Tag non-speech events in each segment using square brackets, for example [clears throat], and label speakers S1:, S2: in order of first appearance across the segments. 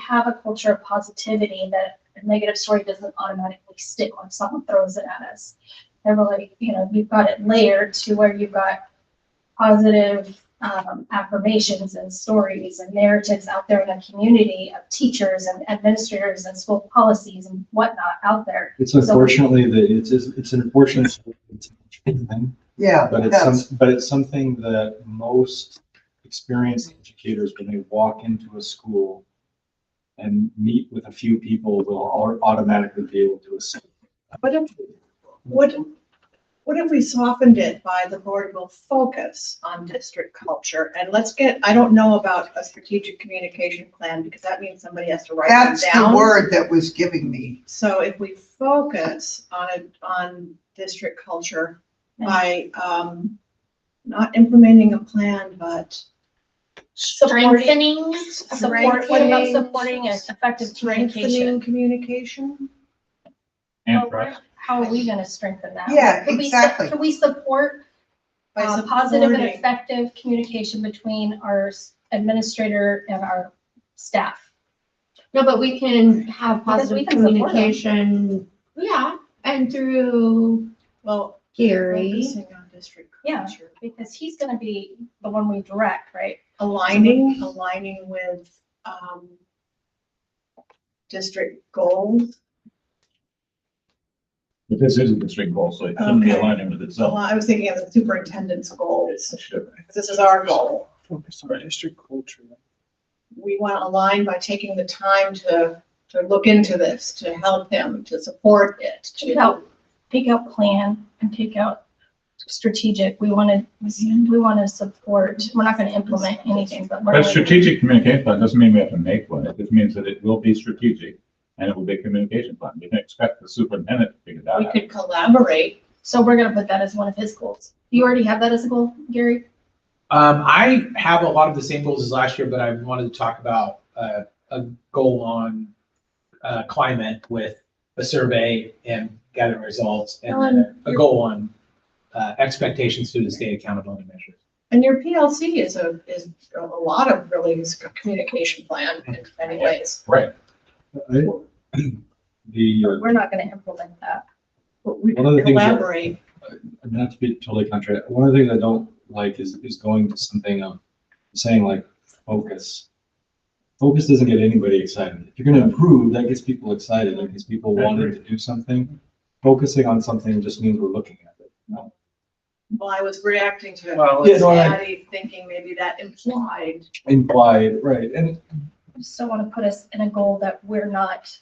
S1: have a culture of positivity that a negative story doesn't automatically stick when someone throws it at us. They're really, you know, you've got it layered to where you've got positive um, affirmations and stories and narratives out there in the community of teachers and administrators and school policies and whatnot out there.
S2: It's unfortunately that it's, it's it's unfortunate, that it's a thing,
S3: Yeah,
S2: but it's
S3: that's,
S2: some, but it's something that most experienced educators, when they walk into a school and meet with a few people, will au- automatically be able to assess.
S4: What if, what, what if we softened it by the board will focus on district culture? And let's get, I don't know about a strategic communication plan because that means somebody has to write
S3: that's
S4: it
S3: the
S4: down.
S3: word that was giving me.
S4: So if we focus on it, on district culture by, um, not implementing a plan, but supporting,
S1: Strengthening, support, what about
S4: Strengthening.
S1: supporting and effective communication?
S4: strengthening communication.
S1: Well,
S2: And
S1: we're- How are we gonna strengthen that?
S3: Yeah,
S1: Can we su-
S3: exactly.
S1: Can we support
S4: By
S1: uh, positive and
S4: supporting.
S1: effective communication between our s- administrator and our staff?
S5: No, but we can have
S1: Because we
S5: positive
S1: can support 'em.
S5: communication, yeah, and through
S4: Well,
S5: Gary.
S4: focusing on district
S1: Yeah.
S4: culture.
S1: Because he's gonna be the one we direct, right?
S6: Mm-hmm.
S4: aligning, aligning with, um, district goals,
S7: But this is a district goal, so it shouldn't be
S4: Okay.
S7: aligning with
S4: So
S7: itself.
S4: I was thinking of the superintendent's goals,
S7: It should.
S4: this is our goal.
S6: Focus on district culture.
S4: We want to align by taking the time to, to look into this, to help him, to support it,
S1: Take
S4: to.
S1: out, take out plan and take out strategic. We wanna, we wanna support, we're not gonna implement anything, but. we're
S7: But
S1: gonna-
S7: strategic communication plan doesn't mean we have to make one. It just means that it will be strategic and it will be a communication plan. We can expect the superintendent to figure that
S4: We
S7: out.
S4: could collaborate,
S1: So we're gonna put that as one of his goals. You already have that as a goal, Gary?
S8: Um, I have a lot of the same goals as last year, but I wanted to talk about uh, a goal on uh, climate with a survey and gathering results and
S4: Ellen,
S8: a goal on uh, expectations through the state accountability measures.
S4: and your PLC is a, is a lot of really is a communication plan in many ways,
S7: Right.
S2: I- [clears throat] The, uh,
S1: We're not gonna implement that.
S4: but we
S2: One of the
S4: could
S2: things that-
S4: collaborate.
S2: not to be totally contrary, one of the things I don't like is, is going to something of saying like focus. Focus doesn't get anybody excited. If you're gonna improve, that gets people excited, that gets people
S7: I
S2: wanting to do something. Focusing on something just means we're looking at it. No.
S4: Well, I was reacting to
S8: Well,
S2: Yeah, no, I-
S4: Patty thinking maybe that implied.
S2: Implied, right, and
S1: I just don't want to put us in a goal that we're not,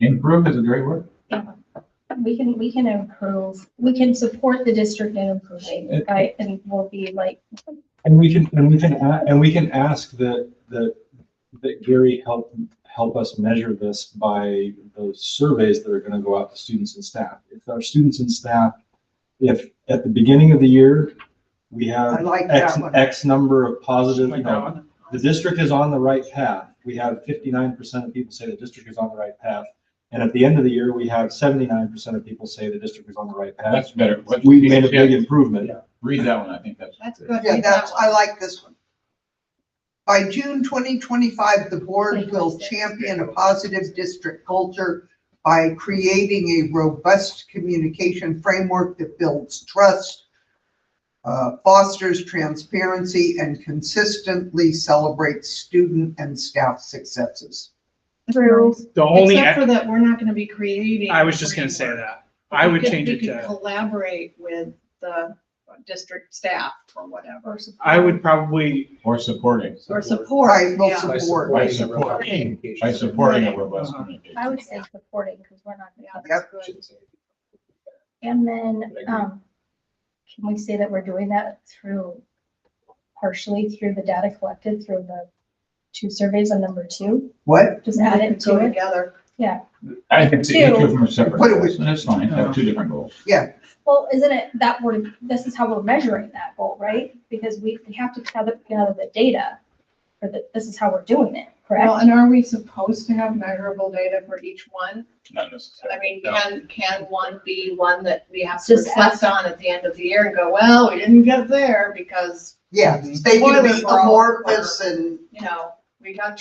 S7: Improve is a great word.
S1: we can, we can improve, we can support the district in improving,
S2: It-
S1: right? And we'll be like,
S2: And we can, and we can, a- and we can ask that, that, that Gary help, help us measure this by those surveys that are gonna go out to students and staff. If our students and staff, if at the beginning of the year, we
S3: I
S2: have
S3: like
S2: X,
S3: that one.
S2: X number of positive, you know,
S8: Like,
S2: the district is on the right path. We have fifty-nine percent of people say the district is on the right path. And at the end of the year, we have seventy-nine percent of people say the district is on the right path.
S7: That's better. What-
S2: We've made a big
S7: yeah,
S2: improvement.
S7: Read that one. I think that's.
S4: That's good.
S3: Yeah, that's, I like this one. By June twenty twenty-five, the board will
S1: 2026.
S3: champion a positive district culture by creating a robust communication framework that builds trust, uh, fosters transparency, and consistently celebrates student and staff successes.
S1: Through-
S6: The only,
S4: Except for that, we're not gonna be creating.
S6: I was just gonna say that. I would
S4: We could-
S6: change
S4: we
S6: it
S4: could
S6: to,
S4: Collaborate with the district staff or whatever,
S6: I would probably,
S7: Or supporting.
S4: or
S3: Right,
S4: support,
S3: we'll
S4: yeah.
S3: support.
S8: by
S7: By
S8: supporting. a robust
S7: supporting.
S8: communication.
S7: By supporting a
S4: Right.
S7: robust
S6: Uh-huh.
S7: communication.
S1: I would say supporting, because we're not.
S4: Yeah, that's
S3: Yep.
S4: good.
S1: And then, um, can we say that we're doing that through, partially through the data collected through the two surveys on number two?
S3: What?
S1: Just add
S4: That could
S1: it
S4: go
S1: to it.
S4: Together,
S7: I think the each of them are separate.
S3: What do we-
S7: goals, and That's fine. Have
S2: Uh-huh.
S7: two different goals.
S1: Well, isn't it that we're, this is how we're measuring that goal, right? Because we, we have to gather, gather the data for the, this is how we're doing it,
S4: well,
S1: correct?
S4: and are we supposed to have measurable data for each one?
S7: Not
S4: I
S7: necessarily.
S4: mean,
S7: No.
S4: can, can one be one that we have to
S1: Just
S4: reflect on at the end of the year and go, well, we didn't get there because,
S3: Yeah, they can be amorphous and
S4: you know, we got